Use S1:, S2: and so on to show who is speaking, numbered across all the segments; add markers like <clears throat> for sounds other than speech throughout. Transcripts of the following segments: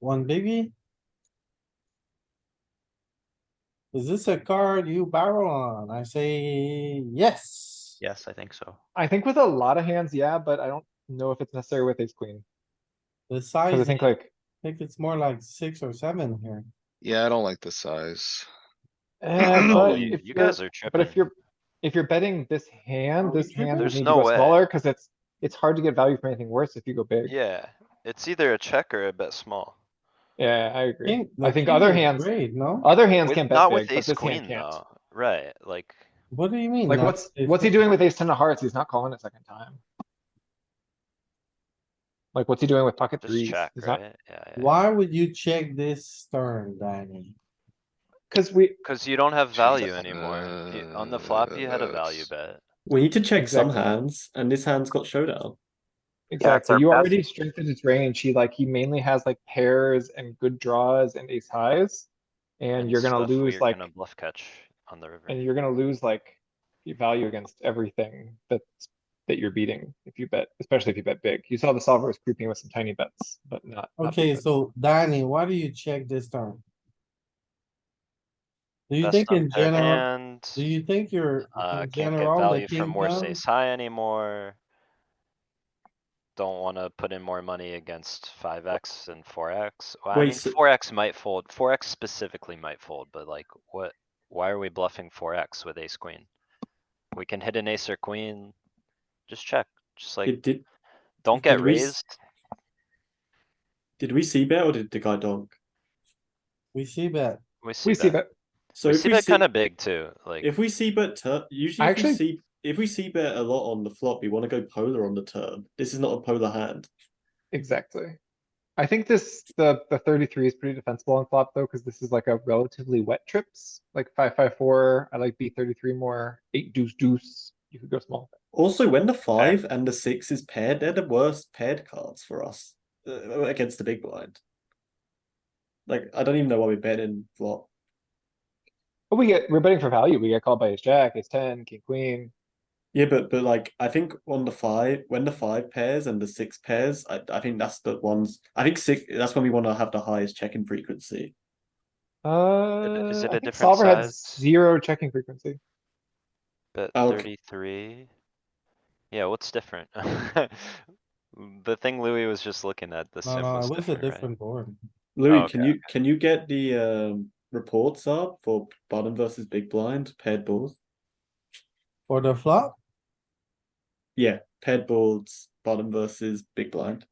S1: One biggie? Is this a card you barrel on? I say yes.
S2: Yes, I think so.
S3: I think with a lot of hands, yeah, but I don't know if it's necessary with ace queen.
S1: The
S3: Cause I
S1: size, I
S2: <clears throat>
S3: think like,
S1: think it's more like six or seven here.
S4: Yeah, I don't like the size.
S2: <clears throat>
S3: eh,
S2: Oh,
S3: but
S2: you
S3: if
S2: you
S3: you're,
S2: guys are tripping.
S3: but if you're, if you're betting this
S1: Are
S3: hand,
S1: we
S3: this hand
S1: Oh, tripping?
S3: would
S2: There's
S3: need to
S2: no
S3: go
S2: way.
S3: smaller, cause it's, it's hard to get value for anything worse if you go big.
S2: Yeah, it's either a check or a bet small.
S3: Yeah, I agree.
S1: King- the
S3: I think
S1: king
S3: other
S1: is
S3: hands,
S1: Great, no?
S3: other hands
S2: With-
S3: can bet
S2: Not with
S3: big, but
S2: ace
S3: this hand
S2: queen
S3: can't.
S2: though, right, like,
S1: What do you mean?
S3: Like
S1: not
S3: what's,
S1: ace
S3: what's he
S1: queen?
S3: doing with ace ten of hearts? He's not calling it second time. Like what's he doing with pocket
S2: just
S3: threes?
S2: check,
S3: He's not-
S2: right? Yeah, yeah, yeah.
S1: Why would you check this turn, Danny?
S3: Cause we,
S2: Cause you don't have value
S4: Check.
S2: anymore. You- On the flop, you had a value
S4: Yes.
S2: bet.
S5: We need to check some
S3: Exactly.
S5: hands, and this hand's got showdown.
S3: Exactly. You already strengthened his range. He like, he mainly has like pairs and good draws and ace highs. And you're gonna
S2: stuff where
S3: lose
S2: you're
S3: like,
S2: gonna Bluff catch on the river.
S3: and you're gonna lose like your value against everything that's, that you're beating if you bet, especially if you bet big. You saw the solver was creeping with some tiny bets, but not. not big
S1: Okay,
S3: bets.
S1: so Danny, why do you check this turn? Do you
S2: Best
S1: think in
S2: unpaired
S1: general,
S2: hand,
S1: do you think you're,
S2: Uh,
S1: in
S2: can't get
S1: general, the
S2: value from
S1: king
S2: worse
S1: down?
S2: ace high anymore. Don't wanna put in more money against five X and four X. Well, I
S5: Wait,
S2: mean,
S5: so-
S2: four X might fold, four X specifically might fold, but like, what, why are we bluffing four X with ace queen? We can hit an ace or queen. Just check, just like,
S5: Did, did
S2: don't get
S5: did we s-
S2: raised.
S5: did we see bet or did the guy donk?
S1: We see bet.
S2: We see
S3: We see
S2: that.
S3: that.
S5: So
S2: We
S5: if
S2: see
S5: we
S2: that
S5: see,
S2: kinda big too, like,
S5: if we see bet turn, usually
S3: I
S5: if we
S3: actually-
S5: see if we see bet a lot on the flop, we want to go polar on the turn. This is not a polar hand.
S3: Exactly. I think this, the, the thirty-three is pretty defensible on flop though, cause this is like a relatively wet trips, like five, five, four, I like B thirty-three more, eight deuce deuce, you could go small.
S5: Also, when the five and the six is paired, they're the worst paired cards for us uh, against the big blind. Like I don't even know why we bet in flop.
S3: But we get, we're betting for value, we get called by ace jack, ace ten, king queen,
S5: Yeah, but but like I think on the five, when the five pairs and the six pairs, I, I think that's the ones. I think six. That's when we want to have the highest checking frequency.
S3: uh.
S2: is it
S3: I
S2: a
S3: think
S2: different
S3: solver had
S2: size?
S3: Zero checking frequency.
S2: bet
S5: Oh, Okay.
S2: thirty-three. Yeah, what's different? <laughs> The thing Louis was just looking at,
S5: Uh,
S2: the
S1: No,
S2: sim
S1: no, it
S2: was
S1: was a
S2: different, right?
S1: different board.
S5: Louis,
S2: Oh,
S5: can
S2: okay,
S5: you can you get the um, reports up for bottom versus big blind paired boards?
S1: For the flop,
S5: Yeah, paired boards, bottom versus big blind.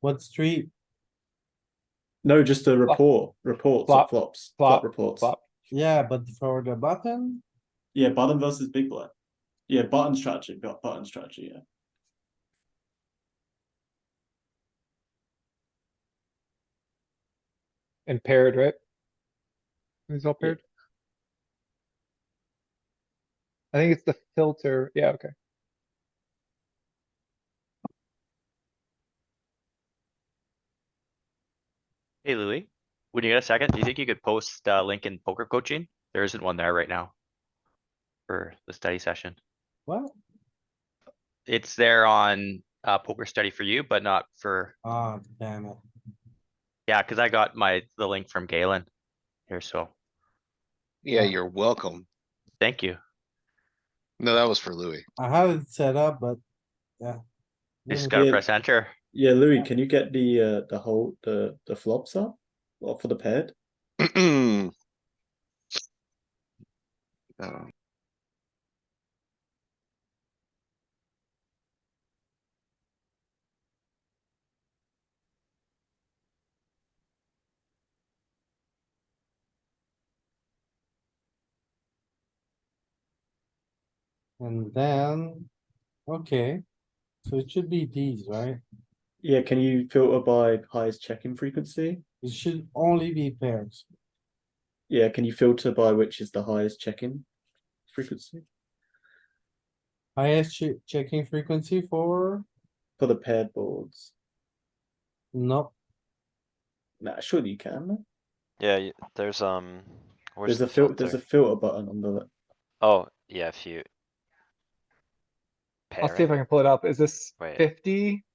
S1: what street?
S5: No, just the report reports of
S3: Flop.
S5: flops
S3: Flop.
S5: reports.
S3: Flop.
S1: Yeah, but for the button,
S5: Yeah, bottom versus big blind. Yeah, button strategy. Got button strategy. Yeah.
S3: And paired, right? These all paired? I think it's the filter, yeah, okay.
S6: Hey Louis, when you get a second, do you think you could post uh link in poker coaching? There isn't one there right now. For the study session.
S1: what?
S6: It's there on uh poker study for you, but not for,
S1: Ah, damn it.
S6: yeah, cuz I got my, the link from Galen. Here, so,
S4: Yeah,
S1: Yeah.
S4: you're welcome.
S6: thank you.
S4: No, that was for Louis. <clears throat>
S1: I had it set up, but, yeah.
S6: You Just
S1: Didn't
S6: gotta
S5: yeah.
S6: press enter.
S5: Yeah, Louis, can you get the uh, the whole the the flops up or for the paired?
S4: Oh. Uh,
S1: And then, okay, so it should be these, right?
S5: Yeah, can you filter by highest check-in frequency?
S1: It should only be pairs.
S5: Yeah, can you filter by which is the highest check-in frequency
S1: Highest che- checking frequency for,
S5: for the paired boards?
S1: no,
S5: Nah, surely you can. no?
S2: Yeah, y- there's, um. where's
S5: There's a
S2: the
S5: fil- there's a filter button on the
S2: Oh, yeah, if you. pair
S3: I'll see if
S2: it.
S3: I can pull it up. Is this
S2: Wait.
S3: fifty?